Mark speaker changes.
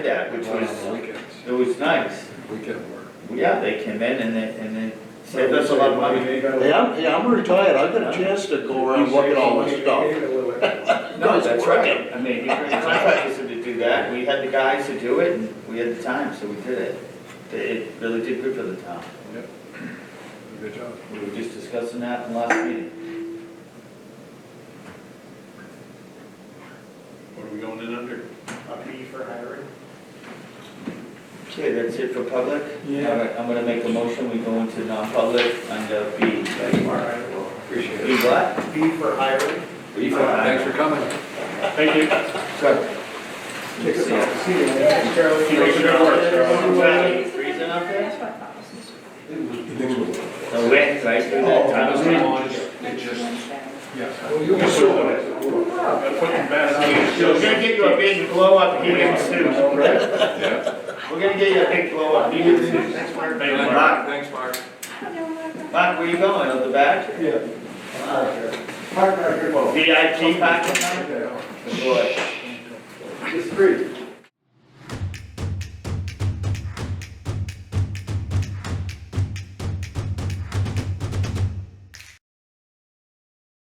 Speaker 1: that, which
Speaker 2: One on the
Speaker 1: was,
Speaker 2: weekends,
Speaker 1: it was nice.
Speaker 2: weekend work.
Speaker 1: Yeah, they came in and they, and they
Speaker 3: So
Speaker 1: saved
Speaker 3: that's
Speaker 1: us
Speaker 3: a lot of money. They got a-
Speaker 4: Hey, I'm, hey, I'm retired, I've got a chance to go around look at all this
Speaker 3: They
Speaker 4: stuff.
Speaker 3: got a little extra.
Speaker 1: No,
Speaker 4: Guys
Speaker 1: that's
Speaker 4: working.
Speaker 1: right. I mean, you bring contractors in to do that, we had the guys to do it, and we had the time, so we did it. It- It really did good for the town.
Speaker 2: Yep. Good job.
Speaker 1: We were just discussing that in the last meeting.
Speaker 2: What are we going in under?
Speaker 3: A fee for hiring.
Speaker 1: Okay, that's it for public?
Speaker 3: Yeah.
Speaker 1: All right, I'm gonna make a motion, we go into non-public under B.
Speaker 3: All right, well,
Speaker 2: Appreciate
Speaker 1: B what?
Speaker 3: fee for hiring.
Speaker 2: Thanks for coming.
Speaker 3: Thank you. Charlie.
Speaker 1: Keep it
Speaker 3: Charlie.
Speaker 1: Freezing up there?
Speaker 2: You think so?
Speaker 1: The wind, right through that
Speaker 3: Oh,
Speaker 1: tunnel.
Speaker 2: Yes.
Speaker 3: Well, you'll be sure of it.
Speaker 1: So we're gonna get you a big blow up helium suit, right?
Speaker 2: Yeah.
Speaker 1: We're gonna get you a big blow up helium suit. Mark,
Speaker 2: Thanks, Mark.
Speaker 1: Mark, where you going, out the back?
Speaker 3: Yeah. Park right here.
Speaker 1: VIP packet?
Speaker 3: Park right here.
Speaker 1: Boy,
Speaker 3: It's free.